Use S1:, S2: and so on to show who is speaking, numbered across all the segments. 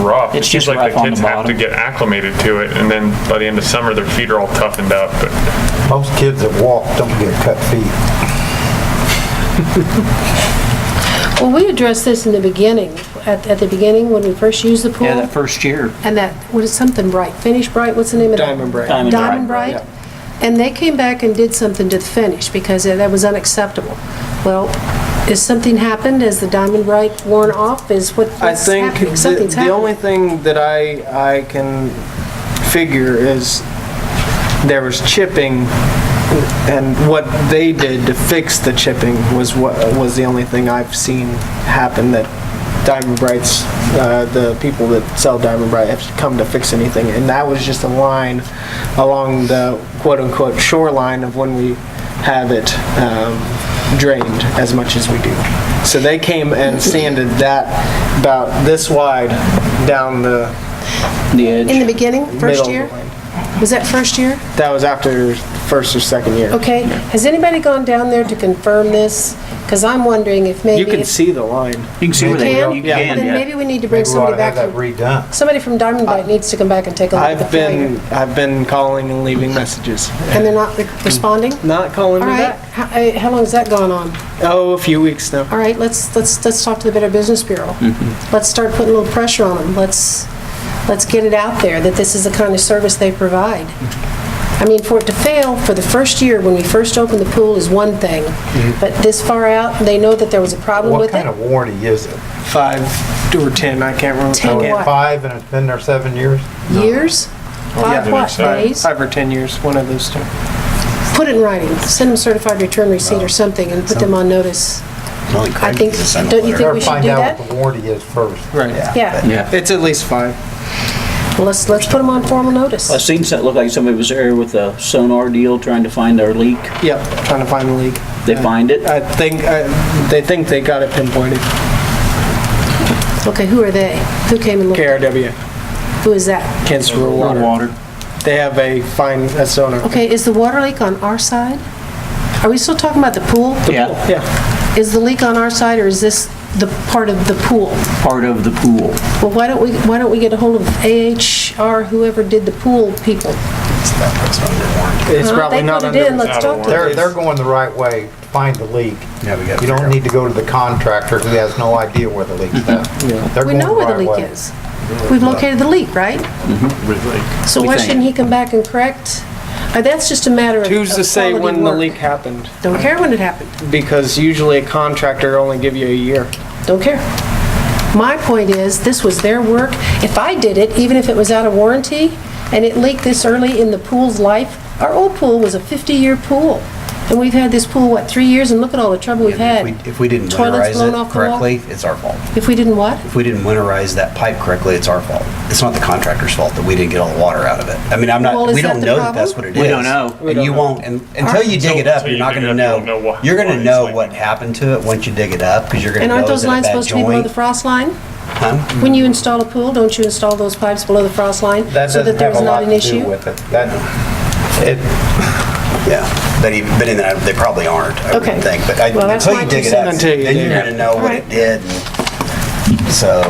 S1: are off.
S2: It's
S1: seems
S2: just
S1: like
S2: rough on the
S1: kids have to
S2: bottom.
S1: get acclimated to it, and then by the end of summer, their feet are all toughened up. But
S3: Most kids that walk don't get cut feet.
S4: Well, we addressed this in the beginning, at, at the beginning, when we first used the pool.
S2: Yeah, that first year.
S4: and that, what is something bright, finish bright, what's the name of that?
S5: Diamond Bright.
S2: Diamond Bright.
S4: Diamond Bright? And they came back and did something to the finish because that was unacceptable. Well, has something happened? Has the Diamond Bright worn off? Is what,
S5: I
S4: what's
S5: think
S4: happening?
S5: the,
S4: Something's
S5: the only
S4: happening.
S5: thing that I, I can figure is there was chipping and what they did to fix the chipping was what, was the only thing I've seen happen that Diamond Brights, uh, the people that sell Diamond Bright have come to fix anything. And that was just a line along the quote-unquote shoreline of when we have it, um, drained as much as we do. So they came and sanded that about this wide down the
S2: The edge.
S4: In the beginning,
S5: middle.
S4: first
S5: of the
S4: year?
S5: line.
S4: Was that first year?
S5: That was after first or second year.
S4: Okay. Has anybody gone down there to confirm this? Because I'm wondering if maybe.
S5: You can
S4: if-
S5: see the line.
S2: You can see where they
S4: Can?
S2: You
S5: Yeah.
S2: can,
S4: Then
S2: yeah.
S4: maybe we need to bring
S3: Maybe we ought
S4: somebody
S3: to have
S4: back.
S3: that
S4: from-
S3: redone.
S4: Somebody from Diamond Bright needs to come back and take a look at the
S5: Uh, I've been,
S4: failure.
S5: I've been calling and leaving messages.
S4: And they're not re- responding?
S5: Not calling
S4: All
S5: me
S4: right,
S5: back.
S4: how eh, how long has that gone on?
S5: Oh, a few weeks now.
S4: All right, let's, let's, let's talk to the Better Business Bureau.
S5: Mm-hmm.
S4: Let's start putting a little pressure on them. Let's, let's get it out there that this is the kind of service they provide.
S5: Mm-hmm.
S4: I mean, for it to fail for the first year, when we first opened the pool, is one thing.
S5: Mm-hmm.
S4: But this far out, they know that there was a problem
S3: What
S4: with
S3: kind
S4: it.
S3: of warranty is it?
S5: Five or 10, I can't remember.
S4: Ten
S5: Again,
S4: what?
S3: Five and it's been there seven years?
S4: Years? Five
S5: Yeah.
S4: what,
S1: Five-
S4: days?
S5: Five or 10 years, one of those two.
S4: Put it in writing. Send them certified return receipt or something and put them on notice. I think, don't you think
S3: Or
S4: we should
S3: find
S4: do
S3: out what
S4: that?
S3: the warranty is first.
S5: Right.
S4: Yeah,
S2: Yeah.
S5: It's at least five.
S4: Well, let's, let's put them on formal notice.
S2: I seen something, looked like somebody was there with a sonar deal trying to find their leak.
S5: Yep, trying to find the leak.
S2: They find it.
S5: I think, I- they think they got it pinpointed.
S4: Okay, who are they? Who came and looked?
S5: KRW,
S4: Who is that?
S5: Kansas Rural Water. They have a fine, a sonar.
S4: Okay, is the water leak on our side? Are we still talking about the pool?
S2: Yeah,
S5: Yeah,
S4: Is the leak on our side, or is this the part of the pool?
S2: part of the pool.
S4: Well, why don't we, why don't we get a hold of AHR, whoever did the pool people?
S5: it's
S4: Well,
S5: probably
S4: they
S5: not
S4: put it
S5: under.
S4: in, let's
S1: Not
S4: talk to
S1: aware.
S3: They're,
S4: them.
S3: they're going the right way, to find the leak.
S6: Yeah, we gotta
S3: You
S6: figure
S3: don't
S6: out.
S3: need to go to the contractor who has no idea where the leak's at. They're
S4: We
S3: going
S4: know where the
S3: right way.
S4: leak is. We've located the leak, right?
S6: Mm-hmm.
S4: So
S2: We
S4: why
S2: think.
S4: shouldn't he come back and correct? Uh, That's just a matter of of
S5: Who's to say
S4: quality
S5: when the
S4: work.
S5: leak happened?
S4: Don't care when it happened.
S5: Because usually a contractor only give you a year.
S4: Don't care. My point is, this was their work. If I did it, even if it was out of warranty, and it leaked this early in the pool's life, our old pool was a 50-year pool. And we've had this pool, what, three years, and look at all the trouble we've
S6: If
S4: had.
S6: we- If we didn't
S4: Toilets blown off
S6: winterize it
S4: the wall.
S6: correctly, it's our fault.
S4: If we didn't what?
S6: If we didn't winterize that pipe correctly, it's our fault. It's not the contractor's fault that we didn't get all the water out of it. I mean, I'm
S4: Well,
S6: not,
S4: is
S6: we
S4: that
S6: don't
S4: the
S6: know that that's what
S4: problem?
S6: it is.
S2: We don't know. We
S6: And you won't, and until you dig
S1: So-
S6: it up,
S1: so
S6: you're
S1: you
S6: not
S1: dig
S6: gonna
S1: it up, you don't know
S6: know.
S1: why-
S6: You're
S1: why
S6: gonna
S1: it's
S6: know
S1: like-
S6: what happened to it once you dig it up, because you're gonna
S4: And
S6: know
S4: aren't
S6: is
S4: those
S6: it a
S4: lines
S6: bad
S4: supposed to be below the
S6: joint?
S4: frost line?
S6: Huh?
S4: When you install a pool, don't you install those pipes below the frost line?
S3: That
S4: so
S3: doesn't have
S4: there's
S3: a
S4: not
S3: lot
S4: an
S3: to do
S4: issue?
S3: with it. That, it,
S6: Yeah, but even, but in that, they probably aren't, I would
S4: Okay.
S6: think, but I-
S4: Well, that's
S6: until
S4: my
S6: you dig it
S4: concern.
S6: up,
S5: Until you
S6: then
S5: dig
S6: you're
S5: it up.
S6: gonna know what
S4: Alright.
S6: it did. and So,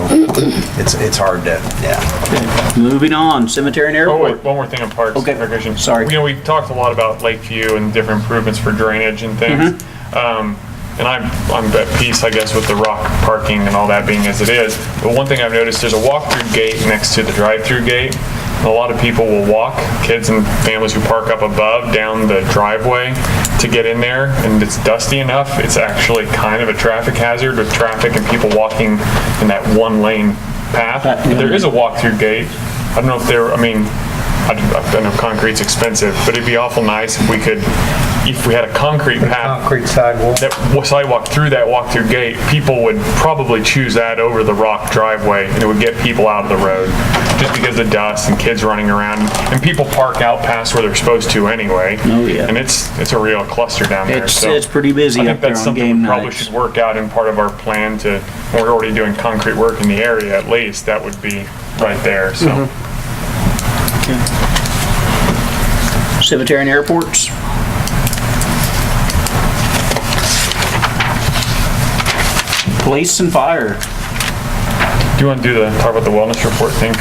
S6: it's, it's hard to, yeah.
S2: Moving on, cemetery and
S1: oh wait,
S2: airport.
S1: one more thing on parks.
S2: Okay,
S1: and recreation.
S2: sorry.
S1: You know, we talked a lot about Lakeview and different improvements for drainage and things. Um, and I'm I'm at peace, I guess, with the rock parking and all that being as it is. But one thing I've noticed, there's a walk-through gate next to the drive-through gate. And a lot of people will walk, kids and families who park up above down the driveway to get in there, and it's dusty enough. It's actually kind of a traffic hazard with traffic and people walking in that one-lane path.
S2: That-
S1: But there is a walk-through gate. I don't know if there, I mean, I I know concrete's expensive, but it'd be awful nice if we could, if we had a concrete path
S3: concrete sidewalk.
S1: that w- sidewalk through that walk-through gate, people would probably choose that over the rock driveway, and it would get people out of the road, just because of dust and kids running around, and people park out past where they're supposed to anyway.
S2: Oh, yeah.
S1: And it's, it's a real cluster down there,
S2: It's-
S1: so.
S2: it's pretty busy
S1: I think
S2: up there
S1: that's
S2: on
S1: something
S2: game
S1: we Probably
S2: nights.
S1: should work out in part of our plan to, we're already doing concrete work in the area at least, that would be right there, so.
S2: Mm-hmm. Cemetery and airports. Police and fire.
S1: you want to do the, talk about the wellness report thing?